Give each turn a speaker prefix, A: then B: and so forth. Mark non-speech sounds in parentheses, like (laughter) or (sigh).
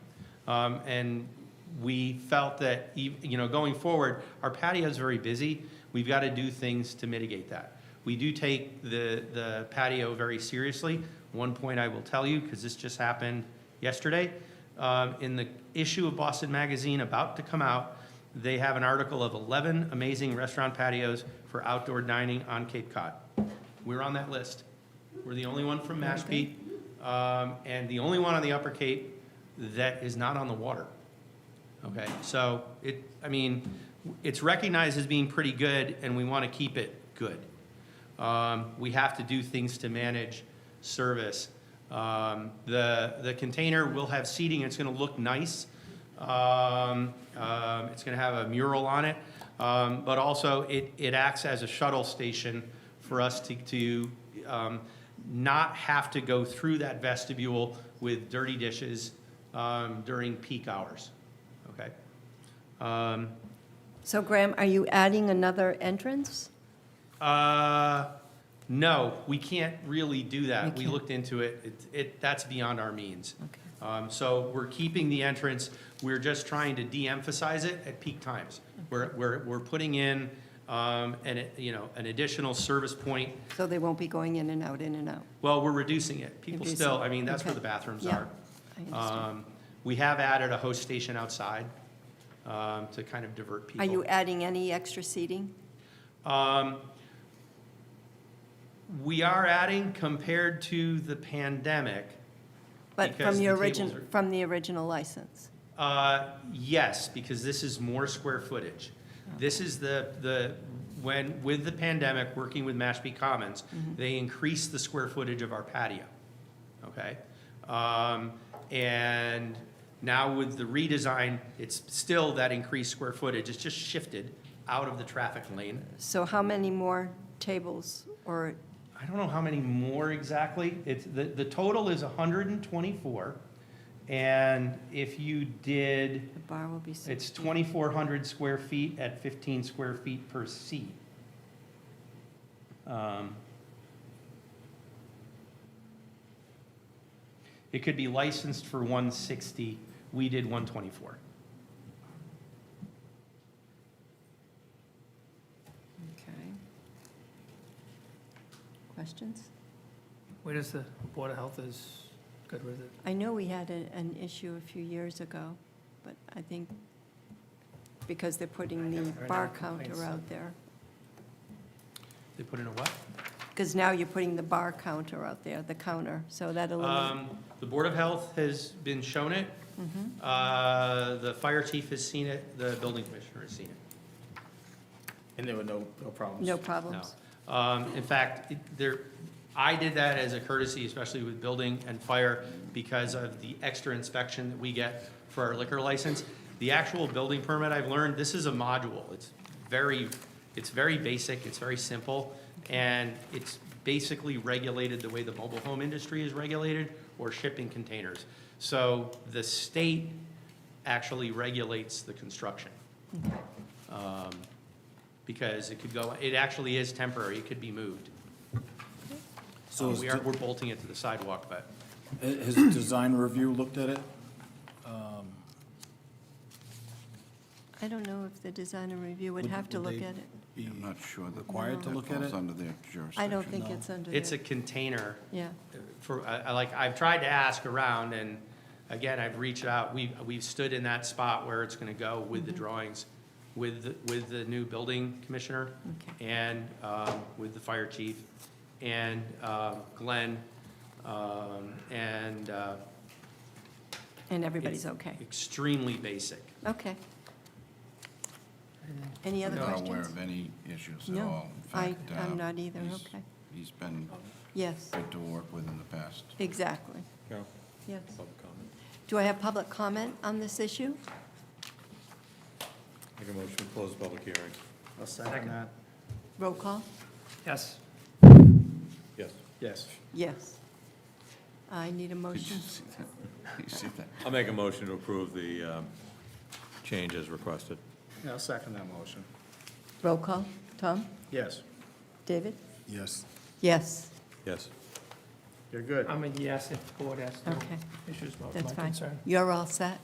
A: Um, And we felt that, ev- you know, going forward, our patio's very busy. We've got to do things to mitigate that. We do take the, the patio very seriously. One point I will tell you, because this just happened yesterday, um, in the issue of Boston Magazine about to come out, they have an article of 11 amazing restaurant patios for outdoor dining on Cape Cod. We're on that list. We're the only one from Mashpee, um, and the only one on the Upper Cape that is not on the water. Okay, so it, I mean, it's recognized as being pretty good, and we want to keep it good. Um, We have to do things to manage service. Um, The, the container will have seating, it's going to look nice. Um, um, It's going to have a mural on it, Um, but also it, it acts as a shuttle station for us to, to um, not have to go through that vestibule with dirty dishes um, during peak hours, okay? Um,
B: So Graham, are you adding another entrance?
A: Uh, no, we can't really do
B: You
A: that. We
B: can't.
A: looked into it. It, it, that's beyond our means.
B: Okay.
A: Um, so we're keeping the entrance. We're just trying to de-emphasize it at peak times. We're, we're, we're putting in, um, an, you know, an additional service point.
B: So they won't be going in and out, in and out?
A: Well, we're reducing it. People
B: Reducing,
A: still, I mean, that's where
B: okay.
A: the bathrooms
B: Yeah,
A: are.
B: I understand.
A: Um, we have added a host station outside, um, to kind of divert people.
B: Are you adding any extra seating?
A: Um, We are adding compared to the pandemic.
B: But
A: Because
B: from your
A: the tables
B: origin,
A: are-
B: from the original license?
A: Uh, Yes, because this is more square footage. This is the, the, when, with the pandemic, working with Mashpee Commons, they increased the square footage of our patio, okay? Um, And now with the redesign, it's still that increased square footage, it's just shifted out of the traffic lane.
B: So how many more tables or,
A: I don't know how many more exactly. It's, the, the total is hundred and twenty-four. And if you did,
B: the bar will be 60?
A: it's twenty-four hundred square feet at fifteen square feet per seat. Um, It could be licensed for one sixty. We did one twenty-four.
B: Okay. Questions?
C: Where does the Board of Health is good with it?
B: I know we had a- an issue a few years ago, but I think because they're putting the
C: haven't heard
B: bar
C: any complaints,
B: counter
C: so-
B: out there.
A: They put in a what?
B: Because now you're putting the bar counter out there, the counter, so that eliminates.
A: Um, The Board of Health has been shown it. Uh, The fire chief has seen it, the building commissioner has seen it.
D: And there were no, no problems?
B: No
A: No.
B: problems?
A: Um, In fact, it- there, I did that as a courtesy, especially with building and fire, because of the extra inspection that we get for our liquor license. The actual building permit, I've learned, this is a module. It's very, it's very basic, it's very simple, and it's basically regulated the way the mobile home industry is regulated or shipping containers. So the state actually regulates the construction because it could go, it actually is temporary, it could be moved.
D: So
A: So
D: is
A: Uh, we are,
D: de-
A: we're bolting it to the sidewalk, but
D: Has design review looked at it?
B: I don't know if the design and review would have to
D: Would- would
B: look
D: they
B: at it.
D: be
E: I'm not sure that
D: Required to
E: that
D: look at
E: falls
D: it?
E: under their
B: I
E: jurisdiction.
B: don't think it's under there.
A: it's a container
B: Yeah,
A: for, I, I like, I've tried to ask around and again, I've reached out, we've, we've stood in that spot where it's gonna go with the drawings, with, the- with the new building commissioner
B: Okay.
A: and, um, with the fire chief and, um, Glenn, um, and, uh,
B: and everybody's okay.
A: extremely basic.
B: Okay. Any
E: I'm
B: other
E: not aware
B: questions?
E: of any issues at
B: No,
E: all. In
B: I,
E: fact, uh,
B: I'm not either,
E: he's-
B: okay.
E: He's been
B: Yes,
E: good to work with in the past.
B: exactly,
D: No.
B: yes.
D: Public comment.
B: Do I have public comment on this issue?
F: Make a motion to close the public hearing.
D: I'll second that.
B: Roll call?
C: Yes.
F: Yes.
D: Yes.
B: Yes. I need a
E: Did you
B: motion.
E: see that? (laughs) Did you see that?
F: I'll make a motion to approve the um, change as requested.
D: I'll second that motion.
B: Roll call? Tom?
D: Yes.
B: David?
E: Yes.
B: Yes,
F: Yes.
D: You're good.
C: I'm a yes if the board has no
B: Okay.
C: issues, my my
B: that's fine.
C: concern.
B: You're all set?